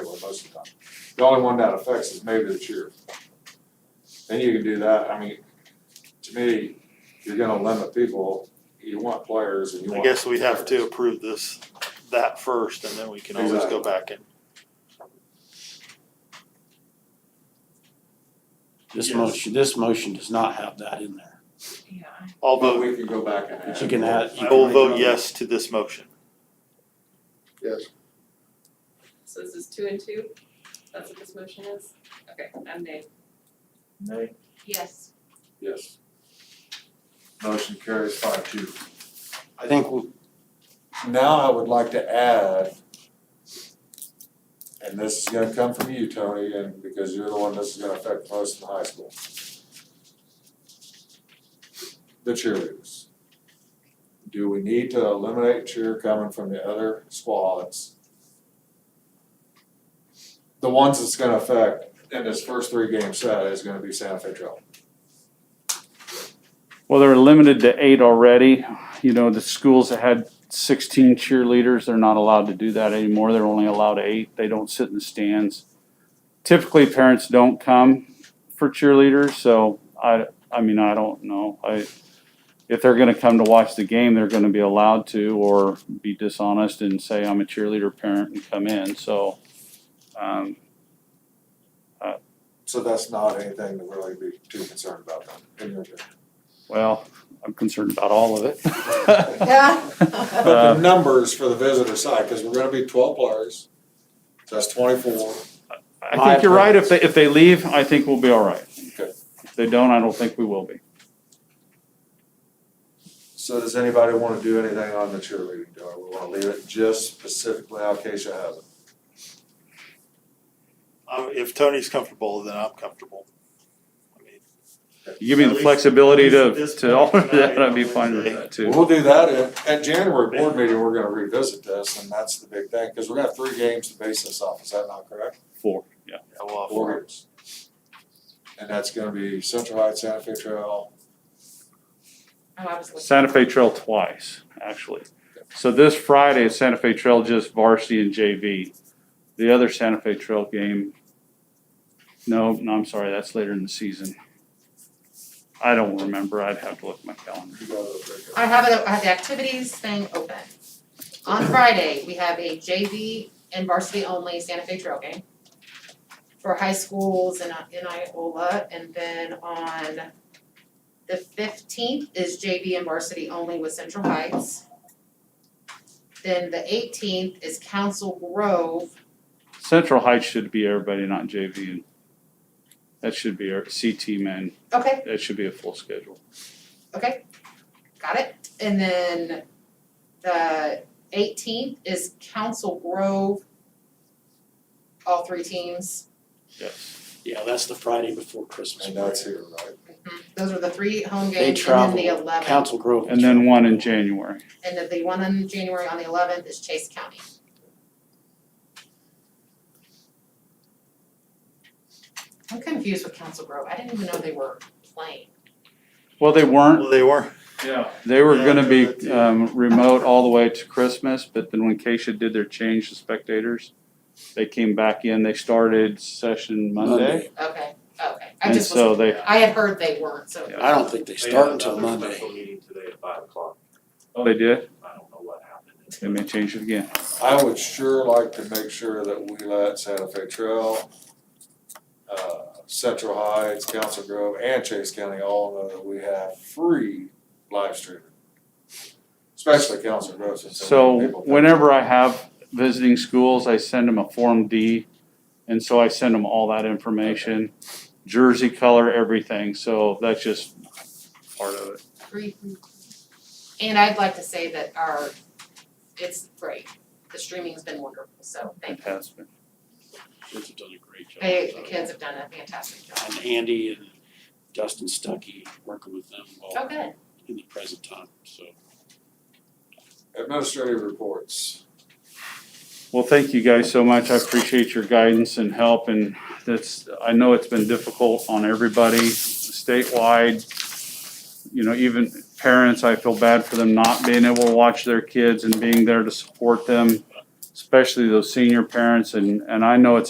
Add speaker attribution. Speaker 1: most of the time. The only one that affects is maybe the sheriff. Then you can do that, I mean, to me, you're gonna limit people, you want players and you
Speaker 2: I
Speaker 1: want.
Speaker 2: guess we have to
Speaker 1: players.
Speaker 2: approve this, that first, and then we can always go
Speaker 1: Exactly.
Speaker 2: back and.
Speaker 3: This
Speaker 2: Yes.
Speaker 3: motion, this motion does not have that in there.
Speaker 4: Yeah, I-
Speaker 2: I'll
Speaker 1: But
Speaker 2: vote,
Speaker 1: we can go back and add.
Speaker 3: But you can add- you
Speaker 2: I will vote yes to this motion.
Speaker 5: Yes.
Speaker 4: so this is two and two? That's what this motion is? Okay, I'm nay.
Speaker 1: Nay.
Speaker 4: Yes.
Speaker 1: Yes. Motion carries five two.
Speaker 3: I think we-
Speaker 1: Now I would like to add, and this is gonna come from you, Tony, and because you're the one this is gonna affect most in high school. The cheerleaders. Do we need to eliminate cheer coming from the other squads? The ones that's gonna affect in this first three game set is gonna be Santa Fe Trail.
Speaker 6: Well, they're limited to eight already. You know, the schools that had sixteen cheerleaders, they're not allowed to do that anymore. They're only allowed eight. They don't sit in the stands. Typically, parents don't come for cheerleaders, so I, I mean, I don't know. I, if they're gonna come to watch the game, they're gonna be allowed to, or be dishonest and say, I'm a cheerleader parent and come in, so. Um,
Speaker 1: So that's not anything to really be too concerned about then, in your opinion.
Speaker 6: well, I'm concerned about all of it.
Speaker 1: But
Speaker 6: Uh,
Speaker 1: the numbers for the visitor side, because we're gonna be twelve players, so that's twenty-four.
Speaker 6: I
Speaker 3: My
Speaker 6: think you're right. If they, if they leave, I think we'll be all right.
Speaker 1: Okay.
Speaker 6: If they don't, I don't think we will be.
Speaker 1: So does anybody wanna do anything on the cheerleading, do we wanna leave it just specifically how Keisha has it?
Speaker 2: Um, if Tony's comfortable, then I'm comfortable. I mean,
Speaker 6: You give me
Speaker 2: At
Speaker 6: the
Speaker 2: least-
Speaker 6: flexibility
Speaker 2: at least at
Speaker 6: to,
Speaker 2: this
Speaker 6: to alter
Speaker 2: point,
Speaker 6: that,
Speaker 2: I-
Speaker 6: I'd be fine with that too.
Speaker 1: We'll do that at, at January board meeting, we're gonna revisit this, and that's the big thing, because we're gonna have three games to base this off, is that not correct?
Speaker 6: Four, yeah.
Speaker 2: I will-
Speaker 1: Four games. And that's gonna be Central Heights, Santa Fe Trail,
Speaker 4: Oh, I was looking.
Speaker 6: Santa Fe Trail twice, actually. So this Friday, Santa Fe Trail just varsity and JV. The other Santa Fe Trail game, no, no, I'm sorry, that's later in the season. I don't remember. I'd have to look at my calendar.
Speaker 1: you got those right
Speaker 7: I have it, I have the activities thing open. On Friday, we have a JV and varsity only Santa Fe trail game for high schools in in Iola, and then on the fifteenth is JV and varsity only with Central Heights. Then the eighteenth is Council Grove,
Speaker 6: Central Heights should be everybody, not JV. That should be our CT men.
Speaker 7: okay,
Speaker 6: That should be a full schedule.
Speaker 7: Okay, got it. And then the eighteenth is Council Grove. All three teams.
Speaker 3: yeah, that's the Friday before Christmas.
Speaker 1: there. And that's here, right?
Speaker 7: Mm-hmm. Those are the three home
Speaker 3: They
Speaker 7: games and then
Speaker 3: travel,
Speaker 7: the eleventh.
Speaker 3: Council Grove.
Speaker 6: And then one in January.
Speaker 7: And then the one in January on the eleventh is Chase County. I'm confused with Council Grove. I didn't even know they were playing.
Speaker 6: Well, they weren't.
Speaker 2: Well, they were,
Speaker 6: Yeah. They were
Speaker 2: Yeah,
Speaker 6: gonna
Speaker 2: I did
Speaker 6: be
Speaker 2: that
Speaker 6: um remote all the way to Christmas, but then when Keisha did their change to spectators, they came back in, they started session
Speaker 7: Okay,
Speaker 6: Monday.
Speaker 7: okay. I
Speaker 6: And
Speaker 7: just was,
Speaker 6: so they,
Speaker 7: I had heard they weren't, so.
Speaker 6: Yeah.
Speaker 3: I don't think they start until Monday.
Speaker 8: meeting today at five o'clock,
Speaker 6: oh, they did,
Speaker 8: I don't know what happened.
Speaker 6: they may change it again.
Speaker 1: I would sure like to make sure that we let Santa Fe Trail, uh, Central Heights, Council Grove, and Chase County all know that we have free live streaming. Especially Council Grove since so
Speaker 6: So
Speaker 1: many people.
Speaker 6: whenever I have visiting schools, I send them a Form D. And so I send them all that information, jersey color, everything, so that's just part of it.
Speaker 7: Free. And I'd like to say that our, it's great, the streaming's been wonderful, so thank
Speaker 6: It
Speaker 7: you.
Speaker 6: has been.
Speaker 3: Kids have done a great job.
Speaker 7: They, the kids have done a fantastic job.
Speaker 3: And Andy and Dustin Stuckey, working with them
Speaker 7: Oh,
Speaker 3: while
Speaker 7: good.
Speaker 3: in the present time, so.
Speaker 1: Administrative reports.
Speaker 6: Well, thank you guys so much. I appreciate your guidance and help and that's, I know it's been difficult on everybody statewide. You know, even parents, I feel bad for them not being able to watch their kids and being there to support them, especially those senior parents and, and I know it's a